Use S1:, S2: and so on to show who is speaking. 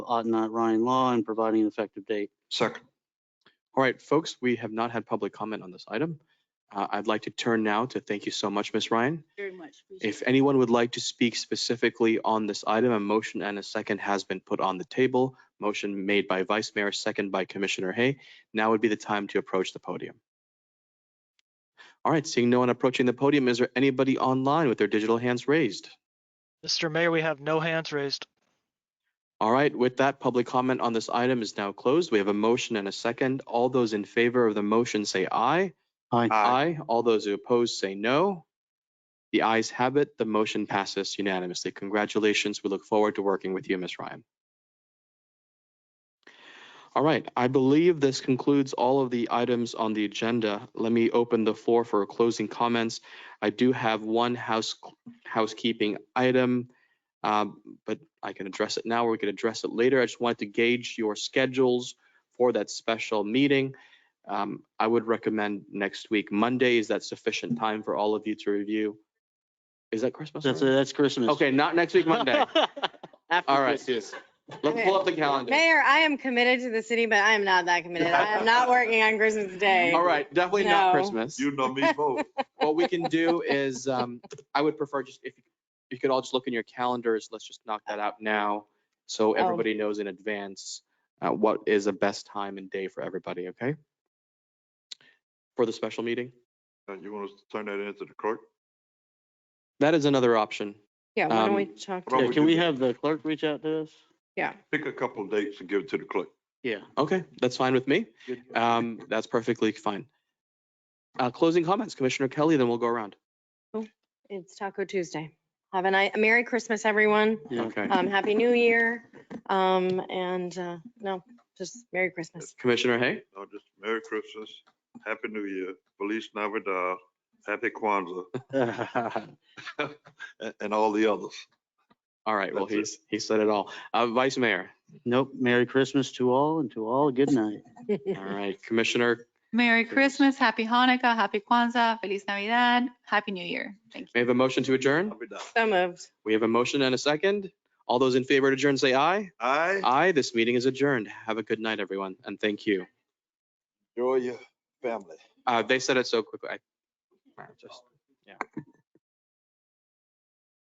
S1: ought not uh, Ryan law and providing an effective date.
S2: Second.
S3: All right, folks, we have not had public comment on this item. Uh, I'd like to turn now to thank you so much, Ms. Ryan.
S4: Very much. appreciate
S3: If anyone would like to speak specifically on this item, a motion and a second has been put on the table. Motion made by Vice Mayor, second by Commissioner Hay. Now would be the time to approach the podium. All right, seeing no one approaching the podium, is there anybody online with their digital hands raised?
S5: Mr. Mayor, we have no hands raised.
S3: All right, with that, public comment on this item is now closed. We have a motion and a second. All those in favor of the motion say aye.
S1: Aye.
S3: Aye. All those who oppose say no. The ayes have it. The motion passes unanimously. Congratulations. We look forward to working with you, Ms. Ryan. All right, I believe this concludes all of the items on the agenda. Let me open the floor for closing comments. I do have one house housekeeping item. Um, but I can address it now or we can address it later. I just wanted to gauge your schedules for that special meeting. Um, I would recommend next week, Monday. Is that sufficient time for all of you to review? Is that Christmas?
S1: That's, uh,
S3: already?
S1: that's Christmas.
S3: Okay, not next week, Monday.
S1: After
S3: All right.
S1: Christmas.
S3: Let's pull up the calendar.
S6: Mayor, I am committed to the city, but I am not that committed. I am not working on Christmas Day.
S3: All right, definitely not
S6: No.
S3: Christmas.
S2: You know me both.
S3: What we can do is, um, I would prefer just if you could all just look in your calendars, let's just knock that out now. So everybody knows in advance, uh, what is the best time and day for everybody, okay? For the special meeting?
S2: Uh, You want us to turn that into the clerk?
S3: That is another option.
S6: Yeah, why
S3: Um,
S6: don't we talk?
S2: Why
S1: Yeah,
S2: don't
S6: to
S2: we
S1: Can
S2: do
S1: we
S2: that?
S1: have the clerk reach out to us?
S2: Pick a couple of dates and give it to the clerk.
S1: Yeah.
S3: Okay, that's fine with me.
S1: Good.
S3: Um, that's perfectly fine. Uh, closing comments, Commissioner Kelly, then we'll go around.
S6: It's Taco Tuesday. Have a nice, Merry Christmas, everyone.
S1: Yeah.
S3: Okay.
S6: Um, Happy New Year. Um, and, uh, no, just Merry Christmas.
S3: Commissioner Hay?
S2: No, Uh, just Merry Christmas, Happy New Year, Feliz Navidad, Happy Kwanzaa, a- and all the others.
S3: All right, well,
S2: That's it.
S3: he's, he said it all. Uh, Vice Mayor?
S1: Nope. Merry Christmas to all and to all a good night.
S3: All right, Commissioner
S7: Merry
S3: Yes.
S7: Christmas, Happy Hanukkah, Happy Kwanzaa, Feliz Navidad, Happy New Year. Thank you.
S3: May I have a motion to adjourn?
S2: Navidad.
S6: So moved.
S3: We have a motion and a second. All those in favor to adjourn say aye.
S2: I
S3: Aye, this meeting is adjourned. Have a good night, everyone, and thank you.
S2: enjoy your family.
S3: Uh, they said it so quickly. I- just-